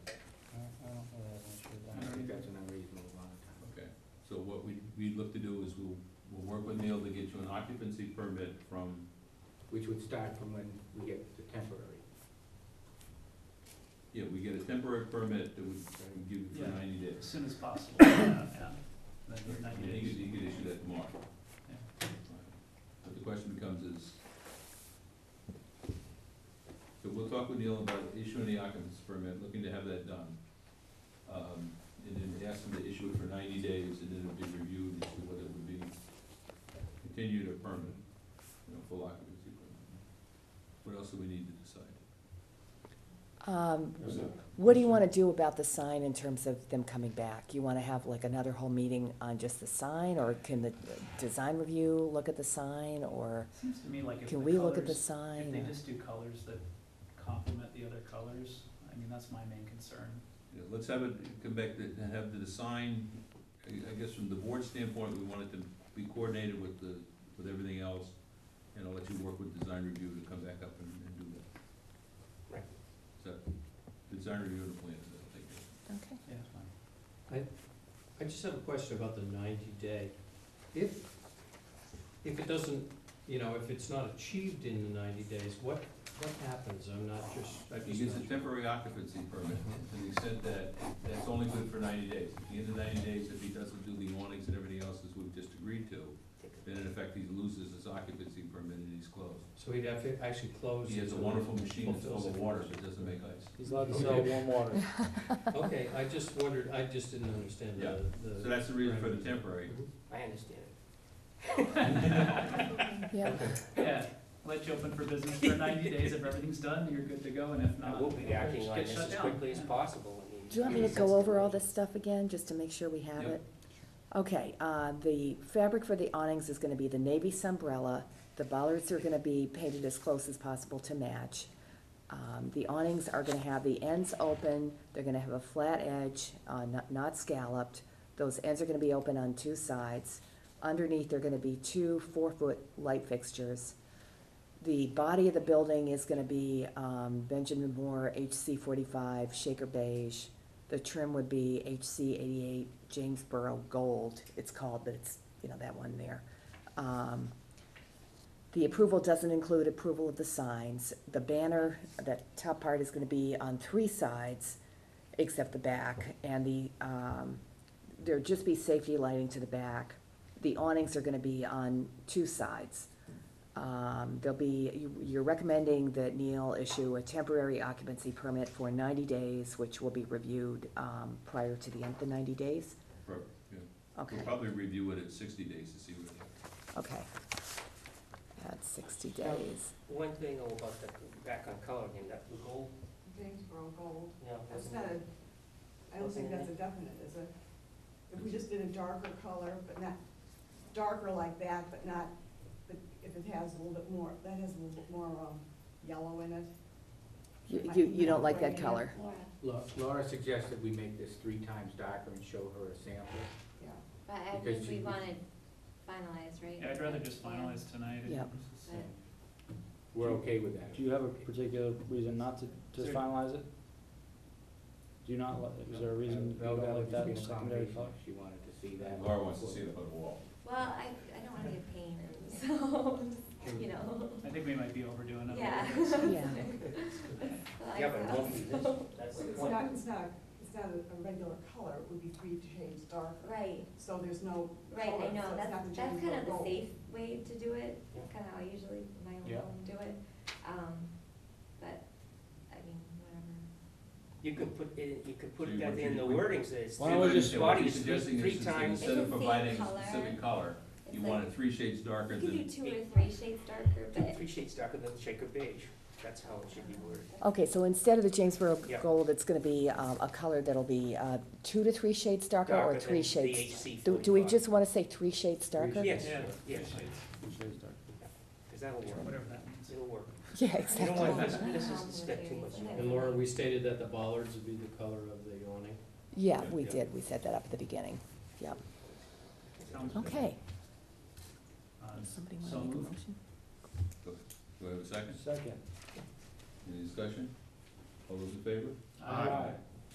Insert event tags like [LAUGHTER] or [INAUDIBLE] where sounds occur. we'd look to do is we'll, we'll work with Neil to get you an occupancy permit from, which would start from when we get the temporary. yeah, we get a temporary permit that would would give you for Yeah. ninety as days. soon as possible, [COUGHS] yeah, yeah, Like Yeah, ninety You days. could, you could issue that tomorrow. Yeah. But the question becomes is, so we'll talk with Neil about issuing the occupancy permit, looking to have that done. Um, and then ask him to issue it for ninety days, and then it'll be reviewed as to whether it would be continued or permanent, you know, full occupancy permit. What else do we need to decide? Um, There's a- What do you want to do about the sign in terms of them coming back? You want to have like another whole meeting on just the sign, or can the design review look at the sign, or Seems to me like if the can we look at the colors- If sign? they or- just do colors that complement the other colors, I mean, that's my main concern. Yeah, let's have it, come back to, to have the design, I, I guess from the board standpoint, we want it to be coordinated with the, with everything else. And I'll let you work with design review to come back up and, and do that. Right. So, design review and the plans, I think. Okay. Yeah, it's fine. I just have a question about the ninety day. If, if it doesn't, you know, if it's not achieved in the ninety days, what, what happens? I'm not just, I He just. gets a not- temporary occupancy permit, to the extent that, that's only good for ninety days. At the end of ninety days, if he doesn't do the awnings and everything else as we've just agreed to, then in effect, he loses his occupancy permit and he's closed. So he'd have to actually close. He has a until- wonderful machine that's full of water, but it doesn't make ice. He's allowed to sell warm water. [LAUGHS] Okay, I just wondered, I just didn't understand Yeah. the, Mhm. So the. that's the reason for the temporary. I understand it. Yeah, Yeah, let you open for business for ninety [LAUGHS] days, if everything's done, you're good to go, and if I not. will be acting just on get this shut as down. quickly as Yeah. possible. and do you want me to go over all this stuff again, just to make sure we have Yep. it? Okay, uh, the fabric for the awnings is gonna be the navy sunbrella, the bollards are gonna be painted as close as possible to match. Um, the awnings are gonna have the ends open, they're gonna have a flat edge, uh, not, not scalloped. Those ends are gonna be open on two sides. Underneath, they are gonna be two four-foot light fixtures. The body of the building is gonna be, um, Benjamin Moore HC forty-five Shaker beige. The trim would be HC eighty-eight Jamesboro Gold, it's called, but it's, you know, that one there. Um, The approval doesn't include approval of the signs. The banner, that top part is gonna be on three sides, except the back, and the, um, there'd just be safety lighting to the back. The awnings are gonna be on two sides. Um, there'll be, you- you're recommending that Neil issue a temporary occupancy permit for ninety days, which will be reviewed, um, prior to the end of the ninety days? Pro- yeah. We'll Okay, probably review it at sixty days to see what, okay. That's sixty days. One thing though about the, back on color again, that the gold, Jamesboro Gold, you know. that's wasn't not it? a, I don't think that's a definite, is it? If we just did a darker color, but not, darker like that, but not, but if it has a little bit more, that has a little bit more, um, yellow in it. You, might you, be you don't like gray that in it. color? La- Laura suggested we make this three times darker and show her a sample. Yeah, But I Because think you- we wanted finalized, right? Yeah, I'd rather just Yeah. finalize tonight. and- Yeah. so We're okay with that. Do you have a particular reason not to just Sir. finalize it? Do you not, li- is there a reason you No, don't that like would that just in be the a secondary combination. color? She wanted to see that. Laura wants to see it on the wall. Well, I, I don't wanna be a pain, [LAUGHS] so, you know, I think we might be overdoing it. a little yeah. uh, bit, so- [LAUGHS] [LAUGHS] Yeah. Yeah, but it won't be this, [LAUGHS] So- that's the Well, it's point. not, it's not, it's not a, a regular color, it would be three shades darker, Right, so there's no right, color, I so know, it's not that's, the that's kind Jamesboro of the Gold. safe way to do it, Yeah. That's kind of how I usually, my own Yeah. home do it, um, but, I mean, whatever. You could put it, you could So put you that want in you the to- wording, so it's Why don't we three just- What you're bodies, three, suggesting three is times. Instead It's of the same providing a color. specific color, It's you like- want it three shades darker You could than, do two or three shades darker, Two, but three shades darker than Shaker beige, that's how it should be worded. Okay, so instead of the Yeah. Jamesboro gold, it's gonna be, um, a color that'll be, uh, two to three shades darker or Darker than three the shades? HC Do, do we 45. just wanna say three shades darker? Yes, Yeah. yes, because that'll work, Whatever that [LAUGHS] means. it'll work. Yeah, You don't exactly. want this, this is the step too much. Yeah. And Laura, we stated that the bollards would be the color of the awning. Yeah, Yeah, we yeah. did, we set that up at the beginning, yep. Sounds good. Okay, Uh, somebody So wanna make a moved. motion? do I have a second? Second. Any discussion? All those in favor? Aye.